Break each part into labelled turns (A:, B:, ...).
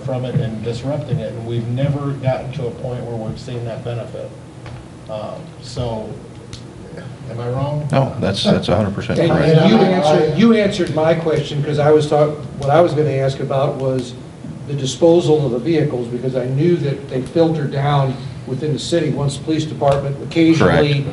A: from it and disrupting it, and we've never gotten to a point where we've seen that benefit. Um, So, am I wrong?
B: No, that's, that's hundred percent
C: And
B: correct.
C: and you
A: Right.
C: answered, you answered my question, because I was talk, what I was going to ask about was the disposal of the vehicles, because I knew that they filter down within the city, once the police department, occasionally,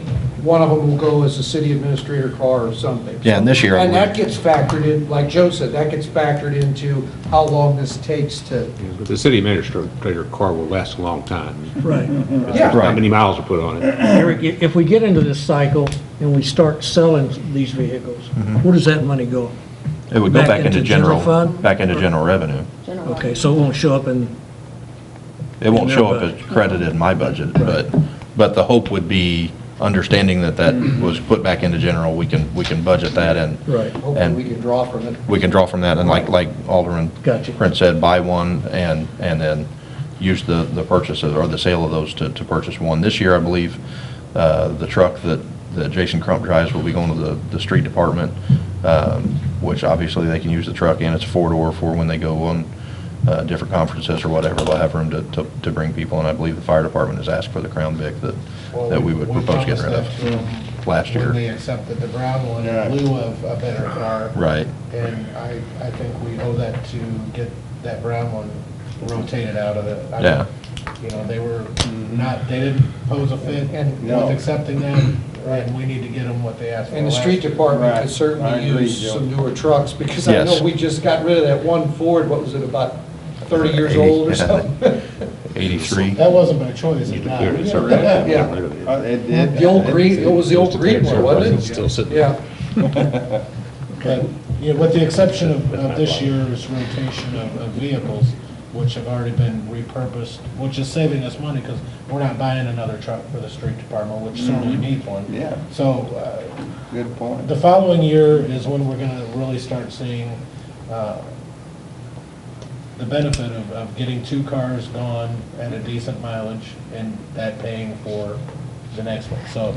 C: one of them will go as a city administrator car or something.
B: Yeah, and this year I
C: And that
B: believe-
C: gets factored in, like Joe said, that gets factored into how long this takes to,
D: But the city administrator car will last a long time.
E: Right.
C: yeah.
D: How
B: Right.
D: many miles are put on it?
E: Eric, i- if we get into this cycle and we start selling these vehicles, where does that money go?
B: It would go back into general,
E: fund?
B: back into general revenue.
F: General.
E: Okay, so it won't show up in,
B: It won't
E: In
B: show
E: their
B: up as
E: budget.
B: credited in my budget, but, but the hope would be, understanding that that was put back into general, we can, we can budget that and.
E: Right.
C: Hopefully, we
B: And
C: can draw from it.
B: we can draw from that and like, like Alderman.
E: Gotcha.
B: Prince said, buy one and, and then use the, the purchases or the sale of those to, to purchase one. This year, I believe, uh, the truck that, that Jason Crump drives will be going to the, the street department, um, which obviously they can use the truck and it's a four-door for when they go on, uh, different conferences or whatever. They'll have room to, to, to bring people and I believe the fire department has asked for the Crown Vic that,
A: Well,
B: that we would propose getting
A: promised that to
B: rid of
A: them
B: last
A: When they
B: year.
A: accepted the brown one in lieu of a better car.
B: Right.
A: And I, I think we owe that to get that brown one rotated out of it. I mean,
B: Yeah.
A: You know, they were not, they didn't pose a fit
C: And-
A: with
G: No.
A: accepting them, and we need to get them what they asked for.
C: And the
A: last
C: street
A: year.
C: department
G: Right.
C: could
G: I
C: certainly
G: agree,
C: use
G: Joe.
C: some newer trucks, because I
B: Yes.
C: know we just got rid of that one Ford, what was it, about 30 years
B: Eighty,
C: old or
B: yeah.
C: something?
B: Eighty-three.
A: That wasn't by choice,
D: You
A: it's not.
D: declared it's already.
C: Yeah.
G: Uh, It did.
C: The old green, it was the old green one, wasn't it?
D: Still sitting.
C: Yeah,
A: But, you know, with the exception of, of this year's rotation of, of vehicles, which have already been repurposed, which is saving us money, because we're not buying another truck for the street department, which certainly needs one.
G: Yeah.
A: So, uh,
G: Good point.
A: the following year is when we're gonna really start seeing, uh, the benefit of, of getting two cars gone at a decent mileage and that paying for the next one. So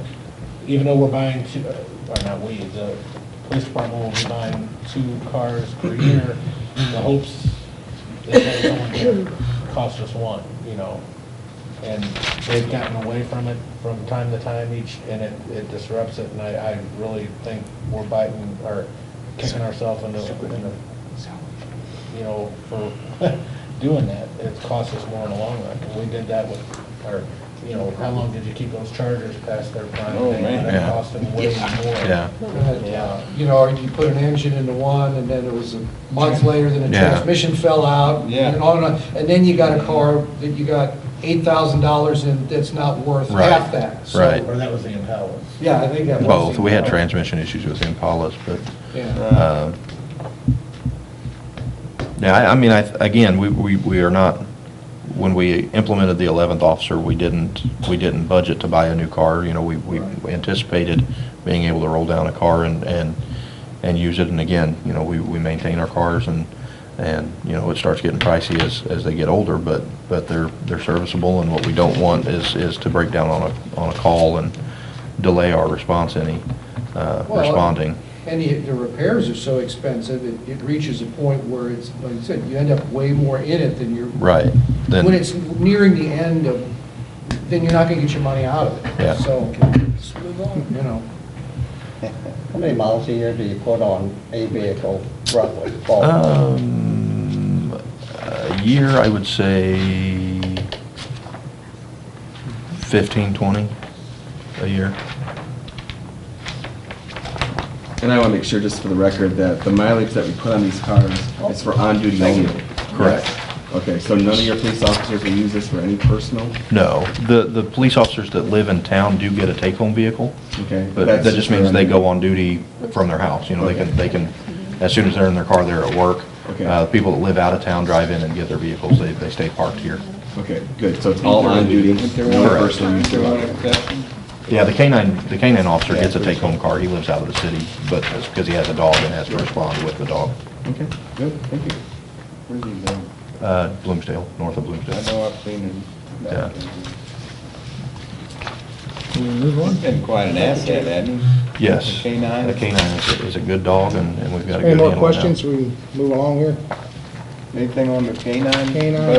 A: even though we're buying two, uh, or not we, the police department will be buying two cars per year in the hopes that they only cost us one, you know? And they've gotten away from it from time to time each, and it, it disrupts it, and I, I really think we're biting, or kicking ourselves in the, in the, you know, for doing that. It's cost us more in the long run, and we did that with, our you know, how long did you keep those chargers past their prime?
G: Oh, man.
A: That
B: Yeah.
A: cost them way more.
B: Yeah.
A: Yeah.
C: you know, or you put an engine into one, and then it was a month later, then the
B: Yeah.
C: transmission fell out.
G: Yeah.
C: And on and on, and then you got a car that you got $8,000 in that's not worth
B: Right.
C: half that. So,
B: Right.
A: Or that was the Impala.
C: Yeah, I think that was.
B: Both. We had transmission issues with Impalas, but,
C: Yeah.
B: um, yeah, I, I mean, I, again, we, we, we are not, when we implemented the 11th officer, we didn't, we didn't budget to buy a new car. You know, we, we anticipated being able to roll down a car and, and, and use it. And again, you know, we, we maintain our cars and, and, you know, it starts getting pricey as, as they get older, but, but they're, they're serviceable. And what we don't want is, is to break down on a, on a call and delay our response any, uh,
C: Well,
B: responding.
C: And the, the repairs are so expensive, it, it reaches a point where it's, like you said, you end up way more in it than you're.
B: Right. Then.
C: When it's nearing the end of, then you're not gonna get your money out of it.
B: Yeah.
C: So, you know,
H: How many miles a year do you put on a vehicle roughly? ballpark?
B: Uh, Um, a year, I would say 15, 20 a year.
I: And I want to make sure, just for the record, that the mileage that we put on these cars is for on-duty only.
B: Correct.
I: Okay, so none of your police officers will use this for any personal?
B: No, the, the police officers that live in town do get a take-home vehicle.
I: Okay,
B: But
I: that's
B: that just means they
I: for-
B: go on duty from their house, you know, they can, they can, as soon as they're in their car, they're at work.
I: Okay.
B: Uh, people that live out of town drive in and get their vehicles, they, they stay parked here.
I: Okay, good, so it's all on-duty, no
B: Correct.
I: personal use.
G: There
I: allowed.
G: was a question?
B: Yeah, the canine, the canine officer gets a take-home car, he lives out of the city, but it's because he has a dog and has to respond with the dog.
I: Okay, good, thank you.
G: Where's he been?
B: Uh, Bloomsdale, north of
G: I
B: Bloomsdale.
G: know I've seen him.
B: Yeah.
E: can we move on?
G: He's been quite an asset, hasn't he?
B: Yes.
G: The canine?
B: The canine is, is a good dog, and, and we've got a
J: Any
B: good handle
J: more
B: now.
J: questions? We move along here.
K: Anything on the canine?
I: Canine.